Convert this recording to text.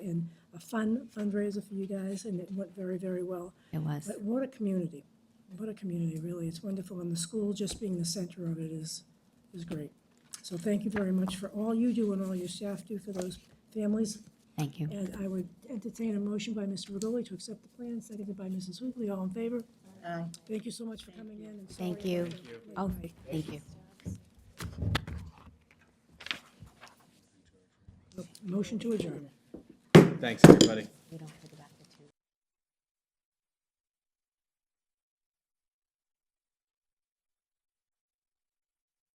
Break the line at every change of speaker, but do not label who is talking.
fun fundraiser for you guys, and it went very, very well.
It was.
But what a community. What a community, really. It's wonderful, and the school just being the center of it is, is great. So thank you very much for all you do and all your staff do for those families.
Thank you.
And I would entertain a motion by Mr. Regoli to accept the plan, seconded by Mrs. Hoobley. All in favor? Aye. Thank you so much for coming in. and sorry
Thank you.
about the late
Oh,
night.
thank you.
Motion to adjourn.
Thanks, everybody.